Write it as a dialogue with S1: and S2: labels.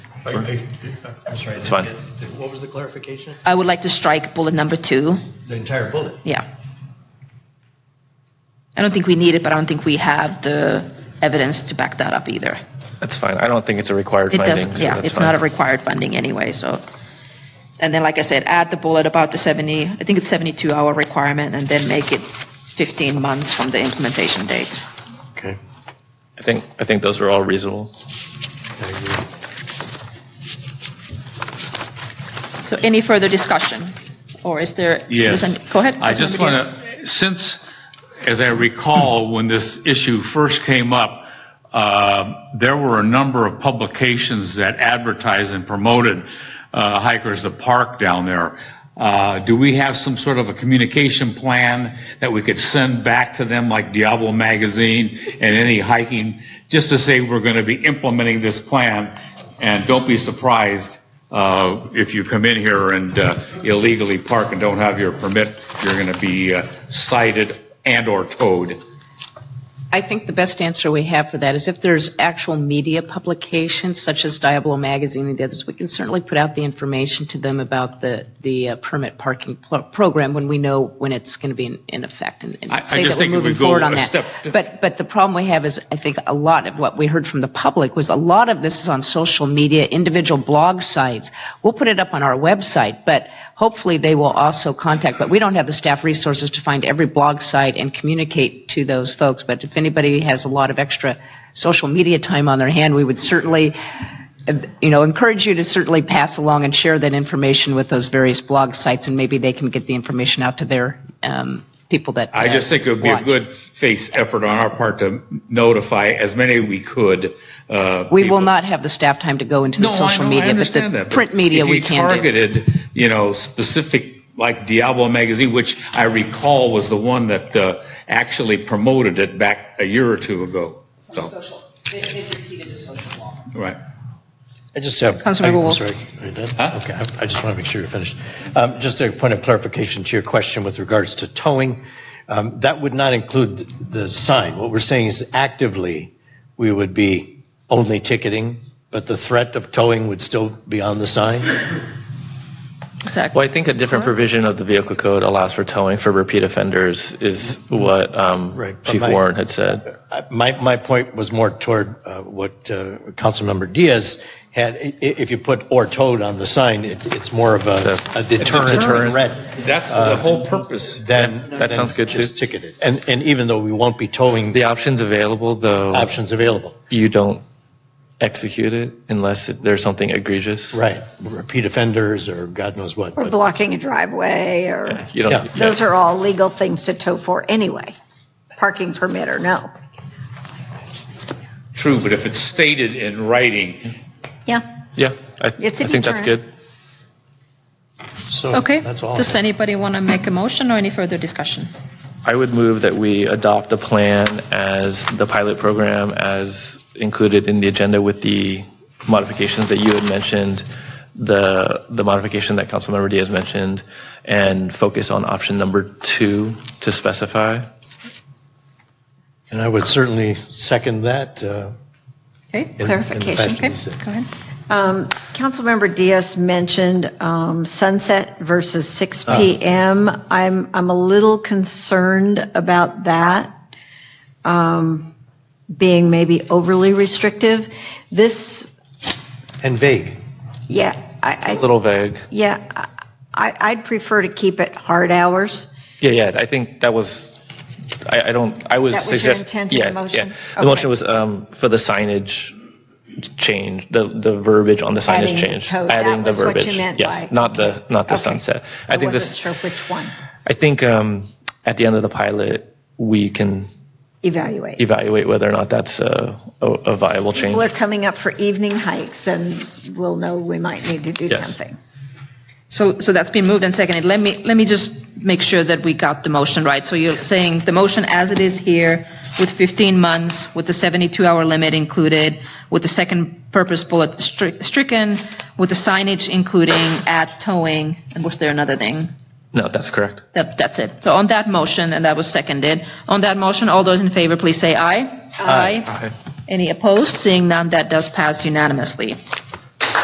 S1: I- I-
S2: I'm sorry. I
S3: It's
S2: didn't
S3: fine.
S2: get- What was the clarification?
S4: I would like to strike bullet number two.
S2: The entire bullet.
S4: Yeah. I don't think we need it, but I don't think we have the evidence to back that up either.
S3: That's fine. I don't think it's a required
S4: It
S3: finding.
S4: does,
S3: so
S4: yeah,
S3: that's
S4: it's not a
S3: fine.
S4: required funding anyway, so. And then, like I said, add the bullet about the 70, I think it's 72 hour requirement, and then make it 15 months from the implementation date.
S3: Okay. I think, I think those are all reasonable.
S4: So any further discussion? Or is there?
S5: Yes.
S4: doesn't- Go ahead.
S5: I just
S4: Councilmember
S5: want
S4: Diaz.
S5: to, since, as I recall, when this issue first came up, uh, there were a number of publications that advertised and promoted uh, Hikers the Park down there. Uh, Do we have some sort of a communication plan that we could send back to them, like Diablo Magazine and any hiking, just to say we're going to be implementing this plan? And don't be surprised uh, if you come in here and uh, illegally park and don't have your permit, you're going to be uh, cited and/or towed.
S6: I think the best answer we have for that is if there's actual media publications such as Diablo Magazine and the others, we can certainly put out the information to them about the, the uh, permit parking pl- program when we know when it's going to be in, in effect and and
S5: I- I
S6: say
S5: just
S6: that we're
S5: think if we
S6: moving
S5: go
S6: forward on
S5: a
S6: that.
S5: step to-
S6: But, but the problem we have is, I think a lot of what we heard from the public was a lot of this is on social media, individual blog sites. We'll put it up on our website, but hopefully they will also contact, but we don't have the staff resources to find every blog site and communicate to those folks. But if anybody has a lot of extra social media time on their hand, we would certainly, uh, you know, encourage you to certainly pass along and share that information with those various blog sites, and maybe they can get the information out to their um, people that.
S5: I
S6: uh,
S5: just think it would be a
S6: watch.
S5: good face effort on our part to notify as many we could. uh,
S6: We
S5: people.
S6: will not have the staff time to go into the
S5: No, I
S6: social
S5: know, I
S6: media, but
S5: understand
S6: the
S5: that,
S6: print media
S5: if
S6: we
S5: you
S6: can do.
S5: targeted, you know, specific, like Diablo Magazine, which I recall was the one that uh, actually promoted it back a year or two ago. So, Right.
S2: I just have.
S4: Councilmember
S2: I- I'm
S4: Wolf.
S2: sorry. Are you done?
S5: Huh?
S2: Okay, I- I just want to make sure you're finished. Um, Just a point of clarification to your question with regards to towing. Um, That would not include th- the sign. What we're saying is actively, we would be only ticketing, but the threat of towing would still be on the sign?
S3: Well, I think a different provision of the vehicle code allows for towing for repeat offenders is what um,
S2: Right, but
S3: Chief
S2: my-
S3: Warren had said.
S2: I- My, my point was more toward uh, what uh, Councilmember Diaz had, I- i- if you put "or towed" on the sign, it- it's more of a
S3: It's a-
S2: a deterrent
S3: Deterrent.
S2: threat
S5: That's the whole purpose.
S2: than.
S3: That- that
S2: than
S3: sounds good, too.
S2: Just ticketed. And, and even though we won't be towing,
S3: The option's available, though
S2: options available.
S3: you don't execute it unless it- there's something egregious.
S2: Right, repeat offenders or God knows what.
S7: Or
S2: but-
S7: blocking a driveway, or,
S3: You don't.
S2: Yeah.
S7: those are all legal things to tow for anyway, parking permit or no.
S5: True, but if it's stated in writing,
S7: Yeah,
S3: Yeah, I, I
S7: It's a
S3: think that's
S7: deterrent.
S3: good.
S2: So
S4: Okay,
S2: that's all. I
S4: does
S2: have.
S4: anybody want to make a motion or any further discussion?
S3: I would move that we adopt the plan as the pilot program as included in the agenda with the modifications that you had mentioned, the, the modification that Councilmember Diaz mentioned, and focus on option number two to specify.
S2: And I would certainly second that. uh,
S4: Okay,
S2: in- in the
S7: Clarification,
S2: fashion
S4: okay,
S2: you said.
S4: go ahead.
S7: Um, Councilmember Diaz mentioned um, sunset versus 6
S3: Oh.
S7: PM. I'm, I'm a little concerned about that um, being maybe overly restrictive. This,
S2: And vague.
S7: yeah, I,
S3: A
S7: I,
S3: little vague.
S7: yeah, I- I, I'd prefer to keep it hard hours.
S3: Yeah, yeah, I think that was, I, I don't, I was.
S7: That was your
S3: suggest-
S7: intent of the
S3: yeah,
S7: motion?
S3: yeah. The motion
S7: Okay.
S3: was um, for the signage change, the, the verbiage on the
S7: Adding
S3: signage
S7: the
S3: change.
S7: tow, that
S3: Adding the
S7: was what
S3: verbiage.
S7: you meant
S3: Yes,
S7: by-
S3: not the, not the
S7: Okay.
S3: sunset. I think
S7: wasn't
S3: this,
S7: sure which one.
S3: I think um, at the end of the pilot, we can
S7: Evaluate.
S3: evaluate whether or not that's a, a- a viable change.
S7: people are coming up for evening hikes, then we'll know we might need to do
S3: Yes.
S7: something.
S4: So, so that's been moved and seconded. Let me, let me just make sure that we got the motion right. So you're saying the motion as it is here with 15 months, with the 72-hour limit included, with the second purpose bullet stri- stricken, with the signage including at towing, and was there another thing?
S3: No, that's correct.
S4: That, that's it. So on that motion, and that was seconded, on that motion, all those in favor, please say aye. Aye. Any opposed? Seeing none, that does pass unanimously.